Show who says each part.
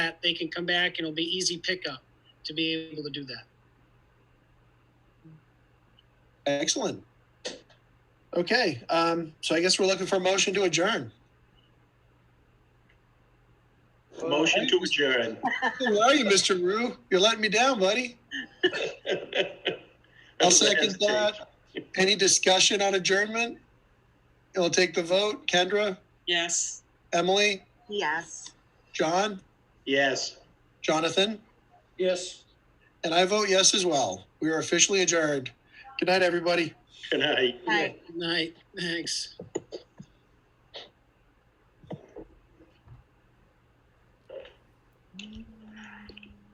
Speaker 1: that they can come back and it'll be easy pickup to be able to do that.
Speaker 2: Excellent. Okay, um, so I guess we're looking for a motion to adjourn.
Speaker 3: Motion to adjourn.
Speaker 2: Where are you, Mr. Rue? You're letting me down, buddy. I'll second that. Any discussion on adjournment? It'll take the vote. Kendra,
Speaker 4: Yes.
Speaker 2: Emily,
Speaker 4: Yes.
Speaker 2: John,
Speaker 3: Yes.
Speaker 2: Jonathan,
Speaker 3: Yes.
Speaker 2: and I vote yes as well. We are officially adjourned. Good night, everybody.
Speaker 3: Good night.
Speaker 4: Right.
Speaker 1: Good night. Thanks.